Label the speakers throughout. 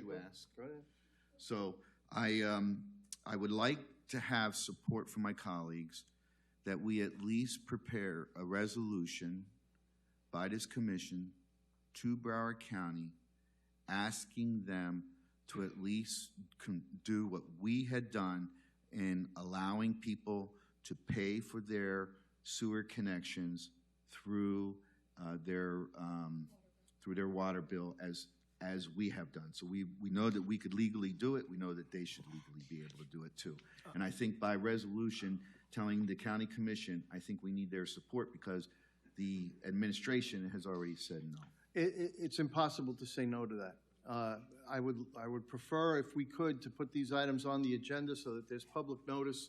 Speaker 1: to ask.
Speaker 2: Go ahead.
Speaker 1: So I, um, I would like to have support from my colleagues that we at least prepare a resolution by this commission to Broward County, asking them to at least con- do what we had done in allowing people to pay for their sewer connections through, uh, their, um, through their water bill as, as we have done. So we, we know that we could legally do it, we know that they should legally be able to do it too. And I think by resolution, telling the county commission, I think we need their support because the administration has already said no.
Speaker 2: It, it, it's impossible to say no to that. Uh, I would, I would prefer, if we could, to put these items on the agenda so that there's public notice.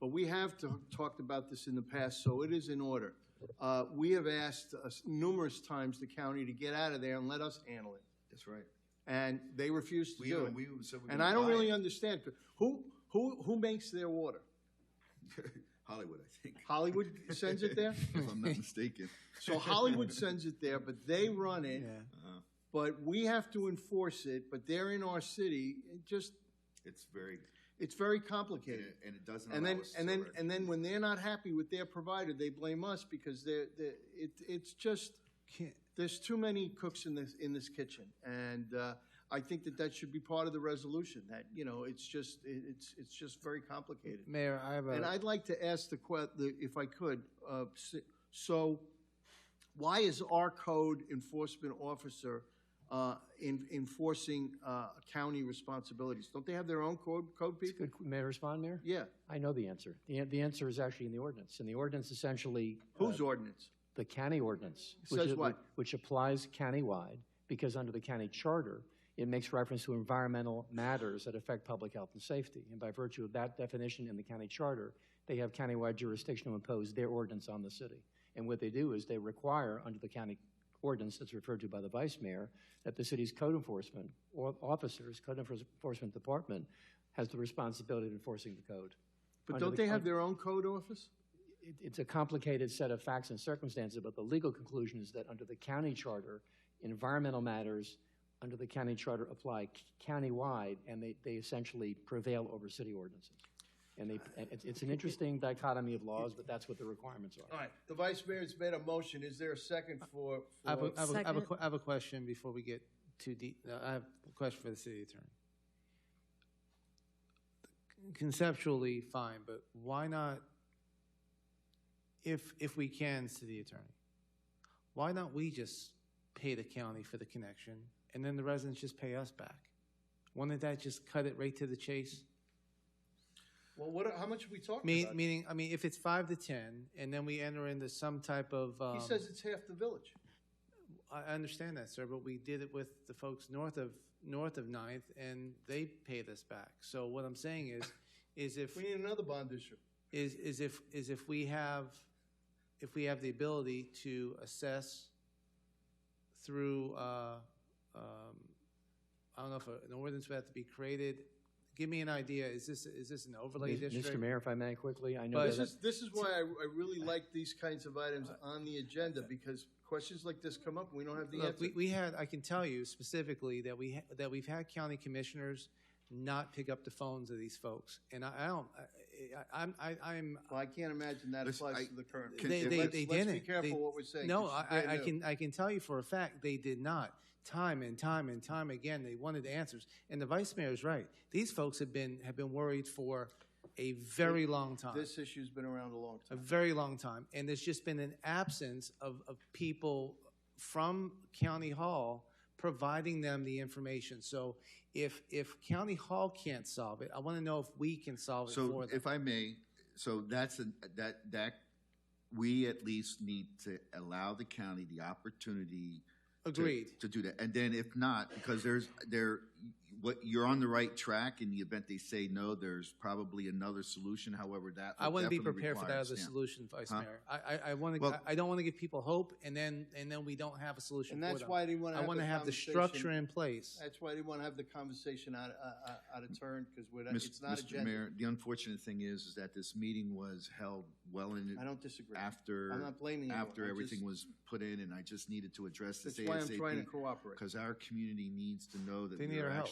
Speaker 2: But we have to- talked about this in the past, so it is in order. Uh, We have asked uh, numerous times the county to get out of there and let us handle it,
Speaker 1: That's right.
Speaker 2: and they refuse to
Speaker 1: We,
Speaker 2: do
Speaker 1: uh,
Speaker 2: it.
Speaker 1: we said we're
Speaker 2: And
Speaker 1: gonna
Speaker 2: I don't
Speaker 1: buy
Speaker 2: really
Speaker 1: it.
Speaker 2: understand, who, who, who makes their water?
Speaker 1: Hollywood, I think,
Speaker 2: Hollywood sends it there?
Speaker 1: if I'm not mistaken.
Speaker 2: So Hollywood sends it there, but they run it.
Speaker 1: Uh,
Speaker 2: But we have to enforce it, but they're in our city, it just,
Speaker 1: It's very,
Speaker 2: it's very
Speaker 1: and
Speaker 2: complicated.
Speaker 1: it- and it doesn't
Speaker 2: And
Speaker 1: allow
Speaker 2: then,
Speaker 1: us.
Speaker 2: and then,
Speaker 1: sewer.
Speaker 2: and then when they're not happy with their provider, they blame us because they're, they're, it, it's just,
Speaker 3: Can't-
Speaker 2: there's too many cooks in this, in this kitchen. And, uh, I think that that should be part of the resolution, that, you know, it's just, it, it's, it's just very complicated.
Speaker 3: Mayor, I have
Speaker 2: And
Speaker 3: a,
Speaker 2: I'd like to ask the que, the- if I could, uh, s- so why is our code enforcement officer uh, en- enforcing uh, county responsibilities? Don't they have their own code, code
Speaker 3: it's
Speaker 2: people?
Speaker 3: good- may I respond, Mayor?
Speaker 2: Yeah,
Speaker 3: I know the answer. The, an- the answer is actually in the ordinance, and the ordinance essentially. uh,
Speaker 2: whose ordinance?
Speaker 3: The county ordinance. which
Speaker 2: Says
Speaker 3: is-
Speaker 2: what?
Speaker 3: Which applies countywide, because under the county charter, it makes reference to environmental matters that affect public health and safety. And by virtue of that definition in the county charter, they have countywide jurisdiction to impose their ordinance on the city. And what they do is they require, under the county ordinance that's referred to by the vice mayor, that the city's code enforcement or officers, code enforcement department, has the responsibility of enforcing the code.
Speaker 2: But
Speaker 3: Under
Speaker 2: don't
Speaker 3: the
Speaker 2: they have
Speaker 3: con-
Speaker 2: their own code office?
Speaker 3: it, it's a complicated set of facts and circumstances, but the legal conclusion is that under the county charter, environmental matters under the county charter apply c- countywide, and they, they essentially prevail over city ordinances. And they, and it's, it's an interesting dichotomy of laws, but that's what the requirements are.
Speaker 2: All right, the vice mayor's made a motion, is there a second for?
Speaker 4: I have, a,
Speaker 2: for-
Speaker 4: I, have a, I, have a
Speaker 5: Second.
Speaker 4: que- I have a question before we get too deep. No, I have a question for the city attorney. Conceptually, fine, but why not, if, if we can, city attorney, why not we just pay the county for the connection and then the residents just pay us back? Wouldn't that just cut it right to the chase?
Speaker 2: Well, what, are- how much are we talking
Speaker 4: Me,
Speaker 2: about?
Speaker 4: meaning, I mean, if it's five to 10 and then we enter into some type of. Um,
Speaker 2: He says it's half the village.
Speaker 4: I I understand that, sir, but we did it with the folks north of, north of Ninth, and they paid us back. So what I'm saying is, is if,
Speaker 2: We need another bond issue.
Speaker 4: is, is if, is if we have, if we have the ability to assess through, uh, um, I don't know if an ordinance would have to be created. Give me an idea, is this, is this an overlay
Speaker 3: Mr.
Speaker 4: district?
Speaker 3: Mayor, if I may quickly, I know
Speaker 4: But-
Speaker 2: This
Speaker 3: that,
Speaker 2: is, this is why I, I really like these kinds of items on the agenda, because questions like this come up, and we don't have the
Speaker 4: Look,
Speaker 2: answer.
Speaker 4: we, we had, I can tell you specifically that we, ha- that we've had county commissioners not pick up the phones of these folks. And I, I don't, I, I, I'm- I, I'm,
Speaker 2: Well, I can't imagine that
Speaker 1: Listen,
Speaker 2: applies
Speaker 1: I-
Speaker 2: to the current.
Speaker 1: Can-
Speaker 4: they,
Speaker 1: if
Speaker 4: they,
Speaker 2: let's-
Speaker 4: they
Speaker 2: let's
Speaker 4: didn't.
Speaker 2: be careful
Speaker 4: They-
Speaker 2: what we're saying,
Speaker 4: No,
Speaker 2: 'cause
Speaker 4: I,
Speaker 2: it's brand
Speaker 4: I I
Speaker 2: new.
Speaker 4: can, I can tell you for a fact, they did not. Time and time and time again, they wanted answers. And the vice mayor is right. These folks have been, have been worried for a very long time,
Speaker 2: This issue's been around a long
Speaker 4: a
Speaker 2: time.
Speaker 4: very long time. And there's just been an absence of, of people from county hall providing them the information. So if, if county hall can't solve it, I want to know if we can solve it
Speaker 1: So
Speaker 4: for them.
Speaker 1: if I may, so that's, a- that, that, we at least need to allow the county the opportunity to-
Speaker 4: Agreed.
Speaker 1: to do that. And then if not, because there's, there, what, you're on the right track in the event they say no, there's probably another solution, however, that.
Speaker 4: I want to be
Speaker 1: definitely
Speaker 4: prepared for that
Speaker 1: requires-
Speaker 4: other
Speaker 1: yeah.
Speaker 4: solution, Vice
Speaker 1: Huh?
Speaker 4: Mayor. I, I, I want to,
Speaker 1: Well-
Speaker 4: I don't want to give people hope and then, and then we don't have a solution
Speaker 2: And
Speaker 4: for
Speaker 2: that's
Speaker 4: them.
Speaker 2: why I didn't want to
Speaker 4: I
Speaker 2: have the
Speaker 4: want to have the structure
Speaker 2: conversation.
Speaker 4: in place.
Speaker 2: That's why I didn't want to have the conversation out, out- out- out of turn, because we're, not-
Speaker 1: Mis-
Speaker 2: it's not
Speaker 1: Mr.
Speaker 2: agenda.
Speaker 1: Mayor, the unfortunate thing is, is that this meeting was held well in,
Speaker 2: I don't disagree.
Speaker 1: after.
Speaker 2: I'm not blaming you.
Speaker 1: After
Speaker 2: I'm
Speaker 1: everything
Speaker 2: just-
Speaker 1: was put in, and I just needed to address this
Speaker 2: That's why I'm trying to
Speaker 1: ASAP.
Speaker 2: cooperate.
Speaker 1: Because our community needs to know that
Speaker 4: They
Speaker 1: we
Speaker 4: need
Speaker 1: are
Speaker 4: our help.
Speaker 1: actually